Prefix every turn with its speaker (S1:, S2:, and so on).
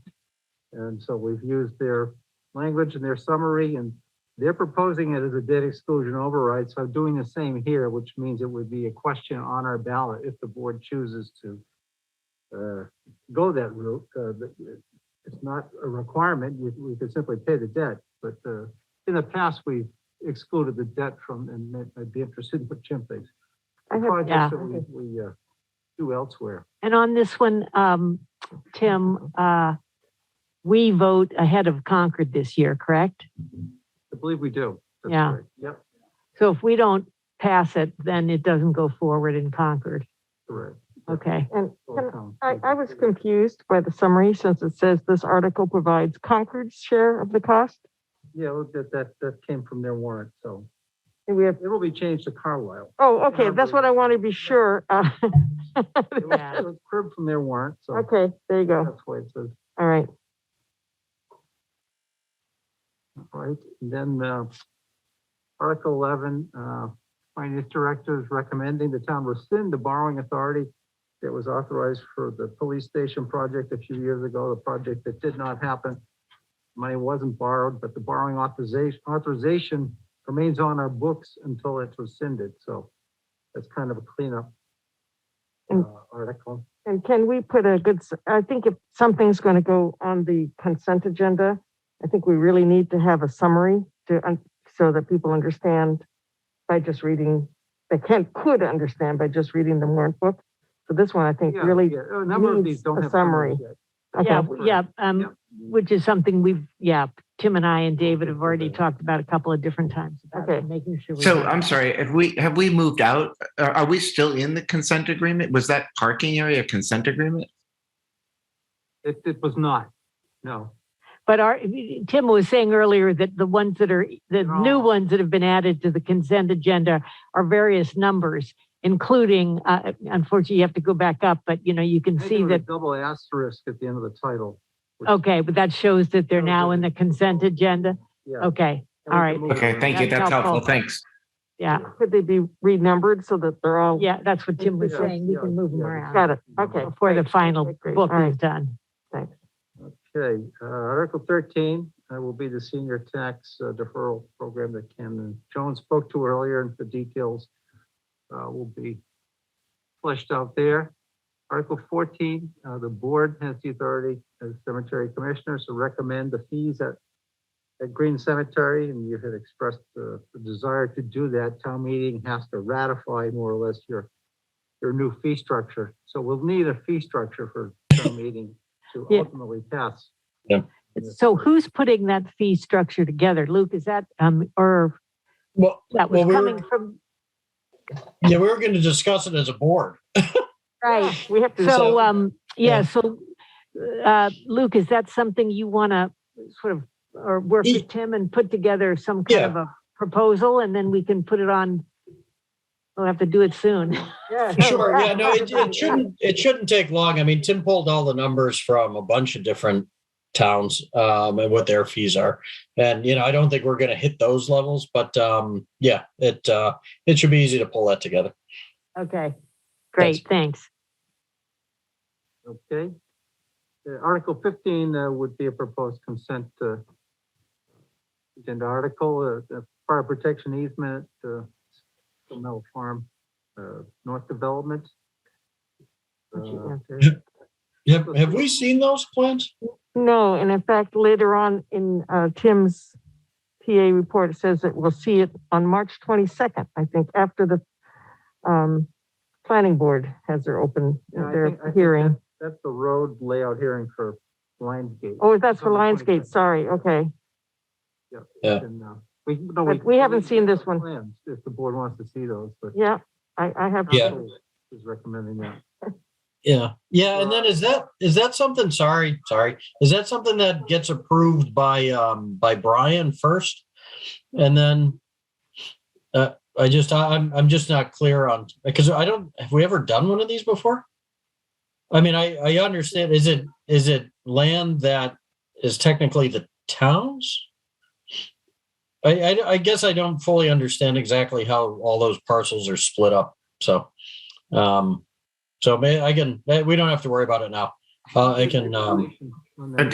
S1: And so we've used their language and their summary and they're proposing it as a debt exclusion override. So I'm doing the same here, which means it would be a question on our ballot if the board chooses to uh, go that route. Uh, but It's not a requirement. We, we could simply pay the debt, but uh, in the past, we've excluded the debt from, and I'd be interested in what Jim thinks.
S2: I have-
S3: yeah.
S1: Projects that we, we uh, do elsewhere.
S3: And on this one, um, Tim, uh, we vote ahead of Concord this year, correct?
S1: I believe we do. That's
S3: Yeah.
S1: right. Yep,
S3: So if we don't pass it, then it doesn't go forward in Concord.
S1: correct.
S3: Okay.
S2: And
S1: Full
S2: Can
S1: count.
S2: I, I was confused by the summary since it says this article provides Concord's share of the cost.
S1: Yeah, well, that, that, that came from their warrant, so
S2: And we have,
S1: it will be changed to Carlisle.
S2: oh, okay, that's what I want to be sure.
S1: It
S2: Uh,
S1: was-
S3: Yeah.
S1: it was cribbed from their warrant, so
S2: Okay, there you go.
S1: that's why it says,
S2: All right.
S1: right? And Then, uh, Article eleven, uh, Finance Director is recommending the town rescind the borrowing authority that was authorized for the police station project a few years ago, the project that did not happen. Money wasn't borrowed, but the borrowing authorization, authorization remains on our books until it's rescinded, so that's kind of a cleanup uh,
S2: And-
S1: article.
S2: And can we put a good, s- I think if something's going to go on the consent agenda, I think we really need to have a summary to, un- so that people understand by just reading, they can, could understand by just reading the warrant book. So this one, I think,
S1: Yeah,
S2: really,
S1: yeah, A number of these
S2: needs
S1: don't
S2: a
S1: have. summaries
S2: summary.
S1: yet.
S2: okay,
S3: Yeah,
S2: all
S1: Correct.
S3: yeah,
S1: Yeah.
S3: um, which is something we've, yeah, Tim and I and David have already
S1: Okay.
S3: talked about a couple of different times. about
S2: Okay.
S3: Making sure. we
S4: So
S3: have-
S4: I'm sorry, have we, have we moved out? Uh, Are, are we still in the consent agreement? Was that parking area consent agreement?
S1: It, it was not, no.
S3: But our, Tim was saying earlier that the ones that are, the
S1: They're
S3: new
S1: all-
S3: ones that have been added to the consent agenda are various numbers, including, uh, unfortunately, you have to go back up, but you know, you can
S1: I
S3: see
S1: do have a
S3: that,
S1: Double asterisk at the end of the title. which-
S3: okay, but that shows that they're
S1: Shows
S3: now
S1: that
S3: in the
S1: it's-
S3: consent agenda.
S1: Yeah. and
S3: Okay,
S1: we
S3: all
S1: can
S3: right.
S1: move
S4: Okay,
S1: on.
S4: thank you.
S3: That's
S4: That's helpful.
S3: helpful.
S4: Thanks.
S3: yeah,
S2: could they be renumbered so that they're all?
S3: yeah, that's what Tim was
S1: Yeah,
S3: saying. We
S1: yeah,
S3: can move them
S1: yeah.
S3: around
S2: Got it, okay.
S3: before the
S2: great,
S3: final
S2: great, great.
S3: book
S2: All right.
S3: is done.
S1: Okay, uh, Article thirteen, uh, will be the senior tax uh, deferral program that Ken and Joan spoke to earlier, and the details, uh, will be fleshed out there. Article fourteen, uh, the board has the authority as cemetery commissioners to recommend the fees at, at Green Cemetery, and you had expressed uh, the desire to do that. Town meeting has to ratify more or less your, your new fee structure. So we'll need a fee structure for town meeting to
S3: Yeah.
S1: ultimately pass. Yeah.
S3: So who's putting that fee structure together? Luke, is that, um, or
S5: Well,
S3: that was
S5: well, we
S3: coming
S5: were,
S3: from,
S5: yeah, we were going to discuss it as a board.
S3: right?
S2: We have to,
S3: So,
S5: So-
S3: um, yeah,
S5: Yeah.
S3: so, uh, Luke, is that something you want to sort of, or work
S5: Ye-
S3: with Tim and put together some kind of a proposal and then we can put it on? We'll have to do it soon.
S2: yeah.
S5: Sure, yeah, no, it, it shouldn't, it shouldn't take long. I mean, Tim pulled all the numbers from a bunch of different towns, um, and what their fees are. And, you know, I don't think we're going to hit those levels, but, um, yeah, it, uh, it should be easy to pull that together.
S3: Okay, great, thanks.
S1: Okay. Uh, Article fifteen uh, would be a proposed consent uh, agenda article, uh, the fire protection easement, uh, Mill Farm, uh, North Development. Uh,
S5: Have, have we seen those plans?
S2: No, and in fact, later on in uh, Tim's PA report, it says that we'll see it on March 22nd, I think, after the um, planning board has their open,
S1: Yeah, I think- I
S2: their
S1: think
S2: hearing.
S1: That's the road layout hearing for Lions Gate.
S2: Oh, that's for
S1: on the
S2: Lionsgate,
S1: 22nd.
S2: sorry, okay.
S5: Yeah.
S1: And, uh, We, no, we.
S2: But we haven't seen this one.
S1: Plans, If the board wants to see those, but.
S2: Yeah, I, I have.
S5: Yeah.
S1: Council Is recommending that.
S5: Yeah, yeah, and then is that, is that something, sorry, sorry, is that something that gets approved by, um, by Brian first? And then, uh, I just, I- I'm, I'm just not clear on, because I don't, have we ever done one of these before? I mean, I, I understand, is it, is it land that is technically the town's? I, I, I guess I don't fully understand exactly how all those parcels are split up, so, um, so may, I can, eh, we don't have to worry about it now. Uh, I can, um,
S1: On that.